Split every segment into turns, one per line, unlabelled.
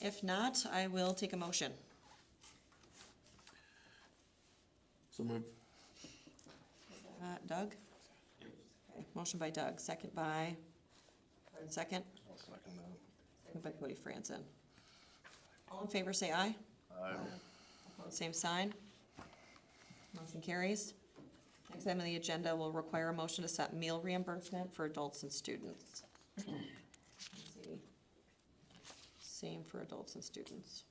If not, I will take a motion.
So moved.
Uh, Doug? Okay, Motion by Doug, second by, second,
I'll second that.
second by Cody Franzen. All in favor, say aye. Same sign. Motion carries. Next item on the agenda will require a motion to set meal reimbursement for adults and students. Let's see. Same for adults and students.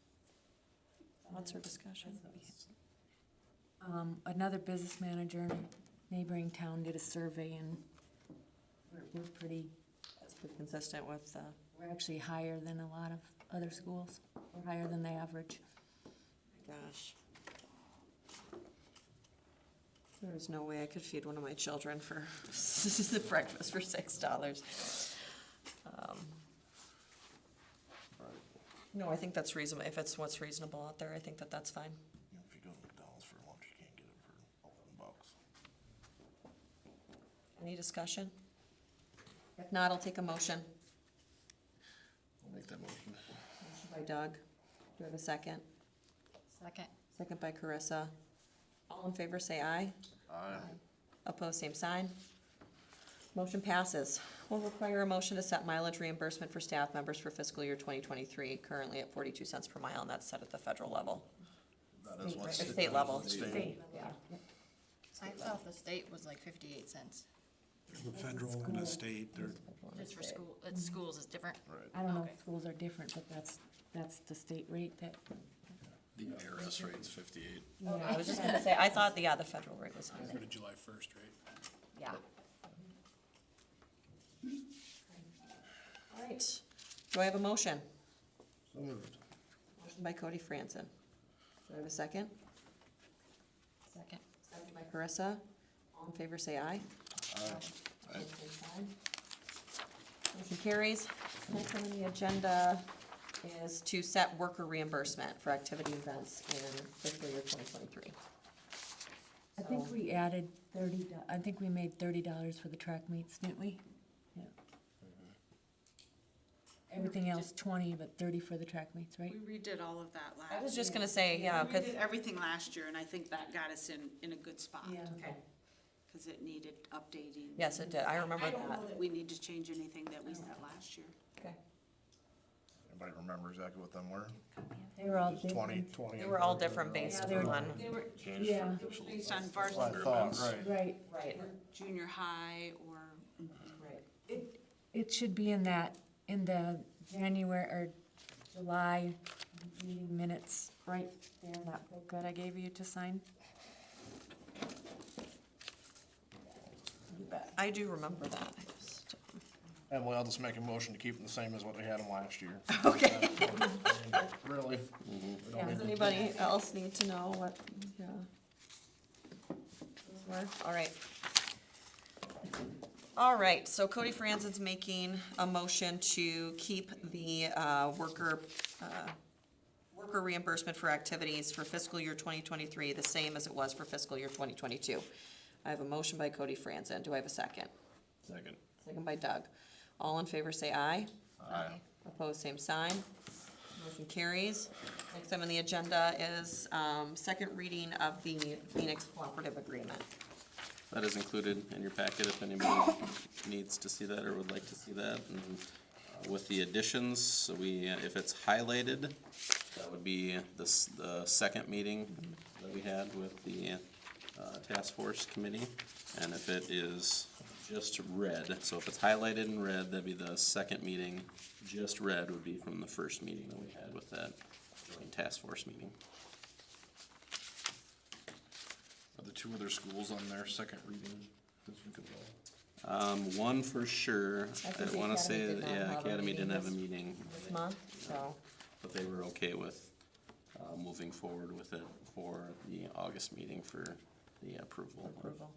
What's our discussion?
Um, another business manager in a neighboring town did a survey and we're, we're pretty,
That's pretty consistent with, uh,
we're actually higher than a lot of other schools. We're higher than the average.
gosh. There's no way I could feed one of my children for, the breakfast for six dollars. Um, No, I think that's reasonable, if it's what's reasonable out there, I think that that's fine.
If you go to McDonald's for lunch, you can't get it for eleven bucks.
Any discussion? If not, I'll take a motion.
I'll make that motion.
Motion by Doug. Do I have a second?
Second.
Second by Carissa. All in favor, say aye.
Aye.
Opposed, same sign. Motion passes. Will require a motion to set mileage reimbursement for staff members for fiscal year twenty twenty-three, currently at forty-two cents per mile, and that's set at the federal level.
That is what's.
State level.
State.
I thought the state was like fifty-eight cents,
The federal and the state, they're,
just for school, it's schools is different.
Right.
I don't know
Okay.
if schools are different, but that's, that's the state rate that,
The IRS rate's fifty-eight.
I was just gonna say, I thought, yeah, the federal rate was higher.
they're to July first, right?
yeah.
All right. Do I have a motion?
So moved.
Motion by Cody Franzen. Do I have a second?
Second.
Second by Carissa. All in favor, say aye.
Aye.
Motion carries. Next on the agenda is to set worker reimbursement for activity events in fiscal year twenty twenty-three.
I think we added thirty, do- I think we made thirty dollars for the track meets, didn't we? Yeah. Everything else twenty, but thirty for the track meets, right?
We redid all of that last year.
I was just gonna say, yeah,
We
cause,
did everything last year, and I think that got us in, in a good spot.
Yeah.
Okay.
Because it needed updating.
yes, it did. I remember
I don't
that.
know that we need to change anything that we said last year.
Okay.
Anybody remember exactly what them were?
They were all
Just Twenty,
different.
twenty.
They were all different based
Yeah, they were-
on,
They were,
Yeah,
it was based on
That's what I
varsity,
thought, right.
right.
right,
junior high, or
right.
It, it should be in that, in the January or July meeting minutes, right there in that book that I gave you to sign.
I do remember that. I just-
Emily, I'll just make a motion to keep them the same as what they had them last year.
Okay.
Really? We don't
Yeah.
need
Does
to-
anybody else need to know what, yeah? Those were? All right. All right, so Cody Franzen's making a motion to keep the uh, worker, uh, worker reimbursement for activities for fiscal year twenty twenty-three the same as it was for fiscal year twenty twenty-two. I have a motion by Cody Franzen. Do I have a second?
Second.
Second by Doug. All in favor, say aye.
Aye.
Opposed, same sign. Motion carries. Next item on the agenda is um, second reading of the Phoenix Cooperative Agreement.
That is included in your packet if anybody needs to see that or would like to see that. And uh, With the additions, so we, uh, if it's highlighted, that would be the, s- the second meeting that we had with the, uh, task force committee. And if it is just red, so if it's highlighted in red, that'd be the second meeting. Just red would be from the first meeting that we had with that joint task force meeting.
Are the two other schools on their second reading this week as well?
Um, one for sure,
think
I
the
wanna
Academy
say,
did
that,
not
yeah,
have a
Academy
meeting
didn't have a
this-
meeting,
This month, so,
but they were okay with, uh, moving forward with it for the August meeting for the approval.
approval.